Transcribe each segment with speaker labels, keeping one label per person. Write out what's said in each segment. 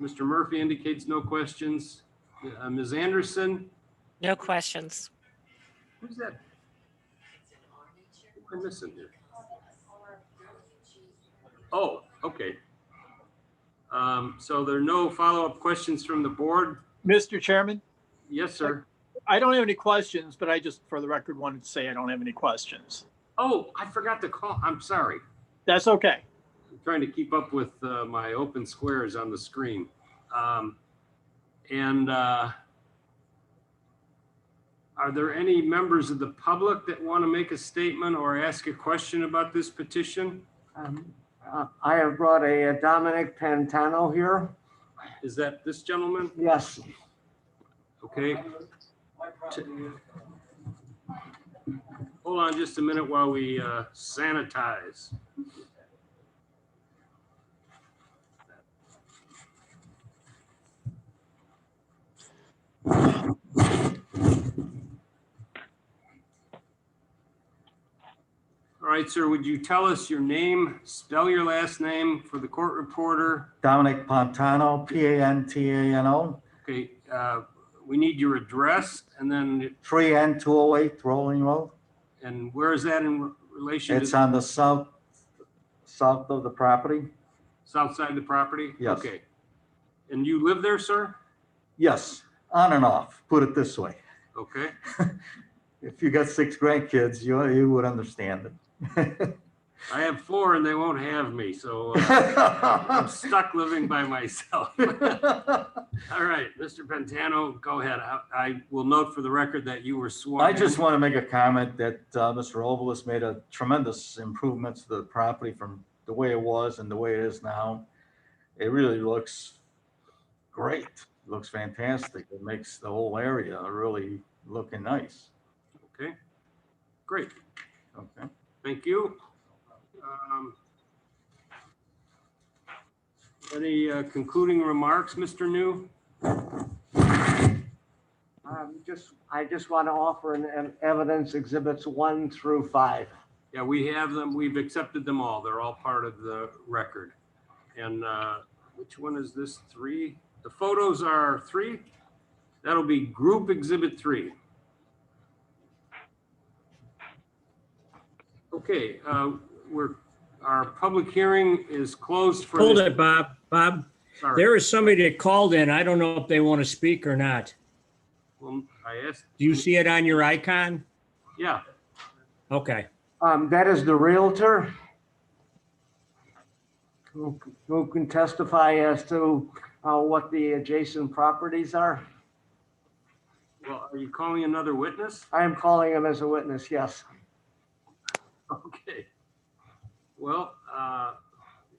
Speaker 1: Mr. Murphy indicates no questions. Uh, Ms. Anderson,
Speaker 2: No questions.
Speaker 1: who's that? Who am I missing here? Oh, okay. Um, So there are no follow-up questions from the board?
Speaker 3: Mr. Chairman,
Speaker 1: Yes, sir.
Speaker 3: I don't have any questions, but I just, for the record, wanted to say I don't have any questions.
Speaker 1: Oh, I forgot to call. I'm sorry.
Speaker 3: That's okay.
Speaker 1: I'm trying to keep up with uh, my open squares on the screen. Um, And uh, are there any members of the public that want to make a statement or ask a question about this petition?
Speaker 4: Um, uh, I have brought a uh, Dominic Pantano here.
Speaker 1: Is that this gentleman?
Speaker 4: Yes,
Speaker 1: Okay. T- Hold on just a minute while we uh, sanitize. All right, sir, would you tell us your name, spell your last name for the court reporter?
Speaker 5: Dominic Pantano, P A N T A N O,
Speaker 1: Okay, uh, we need your address and then
Speaker 5: three N two oh eight Rolling Road.
Speaker 1: And where is that in relation to
Speaker 5: It's
Speaker 1: the
Speaker 5: on the south, south of the property.
Speaker 1: south side of the property?
Speaker 5: Yes.
Speaker 1: Okay. And you live there, sir?
Speaker 5: Yes, on and off, put it this way.
Speaker 1: Okay,
Speaker 5: If you got six grandkids, you, you would understand it.
Speaker 1: I have four and they won't have me, so uh, I'm
Speaker 5: All
Speaker 1: stuck living by myself. All right, Mr. Pantano, go ahead. I- I will note for the record that you were sworn.
Speaker 5: I just
Speaker 1: in.
Speaker 5: want to make a comment that uh, Mr. Obolus made a tremendous improvements to the property from the way it was and the way it is now. It really looks great, looks fantastic. It makes the whole area really looking nice.
Speaker 1: Okay, great,
Speaker 5: Okay.
Speaker 1: thank you. Um, Any uh, concluding remarks, Mr. New?
Speaker 4: um, just, I just want to offer an- an evidence exhibits one through five.
Speaker 1: Yeah, we have them. We've accepted them all. They're all part of the record. And uh, which one is this? Three? The photos are three? That'll be group exhibit three. Okay, uh, we're, our public hearing is closed for.
Speaker 6: Hold
Speaker 1: this-
Speaker 6: it, Bob. Bob,
Speaker 1: Sorry.
Speaker 6: there is somebody that called in. I don't know if they want to speak or not.
Speaker 1: Well, I asked,
Speaker 6: Do you see it on your icon?
Speaker 1: yeah,
Speaker 6: Okay.
Speaker 4: Um, That is the Realtor who who can testify as to uh, what the adjacent properties are.
Speaker 1: well, are you calling another witness?
Speaker 4: I am calling him as a witness, yes.
Speaker 1: Okay. Well, uh,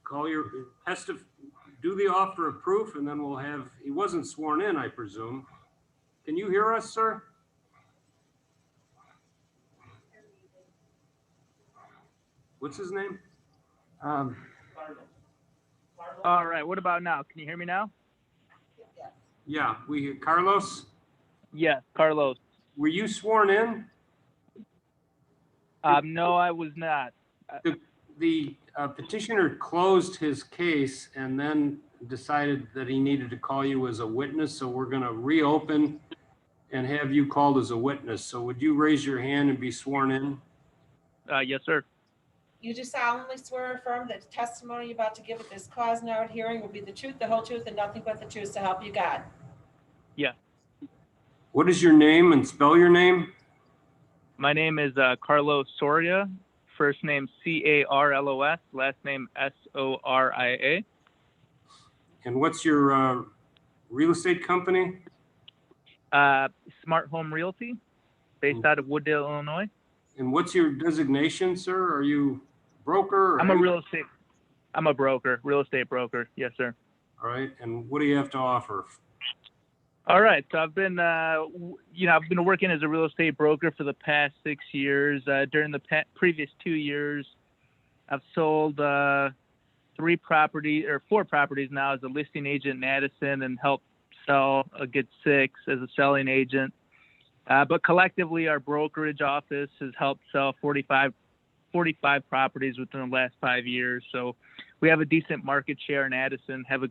Speaker 1: call your, testif, do the offer of proof and then we'll have, he wasn't sworn in, I presume. Can you hear us, sir? What's his name?
Speaker 4: Um,
Speaker 7: All right. What about now? Can you hear me now?
Speaker 1: Yeah, we, Carlos,
Speaker 7: Yes, Carlos.
Speaker 1: were you sworn in?
Speaker 7: Um, no, I was not.
Speaker 1: The uh, petitioner closed his case and then decided that he needed to call you as a witness, so we're gonna reopen and have you called as a witness. So would you raise your hand and be sworn in?
Speaker 7: Uh, yes, sir.
Speaker 8: You do solemnly swear or affirm that the testimony you're about to give at this cause and hour hearing will be the truth, the whole truth, and nothing but the truth, so help you God.
Speaker 1: What is your name and spell your name?
Speaker 7: My name is uh, Carlos Soria. First name C A R L O S. Last name S O R I A.
Speaker 1: And what's your uh, real estate company?
Speaker 7: Uh, Smart Home Realty, based out of Wooddale, Illinois.
Speaker 1: And what's your designation, sir? Are you broker? or-
Speaker 7: I'm a real estate. I'm a broker, real estate broker. Yes, sir.
Speaker 1: All right, and what do you have to offer?
Speaker 7: All right. So I've been, uh, w- you know, I've been working as a real estate broker for the past six years. Uh, during the pa- previous two years, I've sold uh, three property or four properties now as a listing agent in Addison and helped sell a good six as a selling agent. Uh, but collectively, our brokerage office has helped sell 45, 45 properties within the last five years. So we have a decent market share in Addison. Have a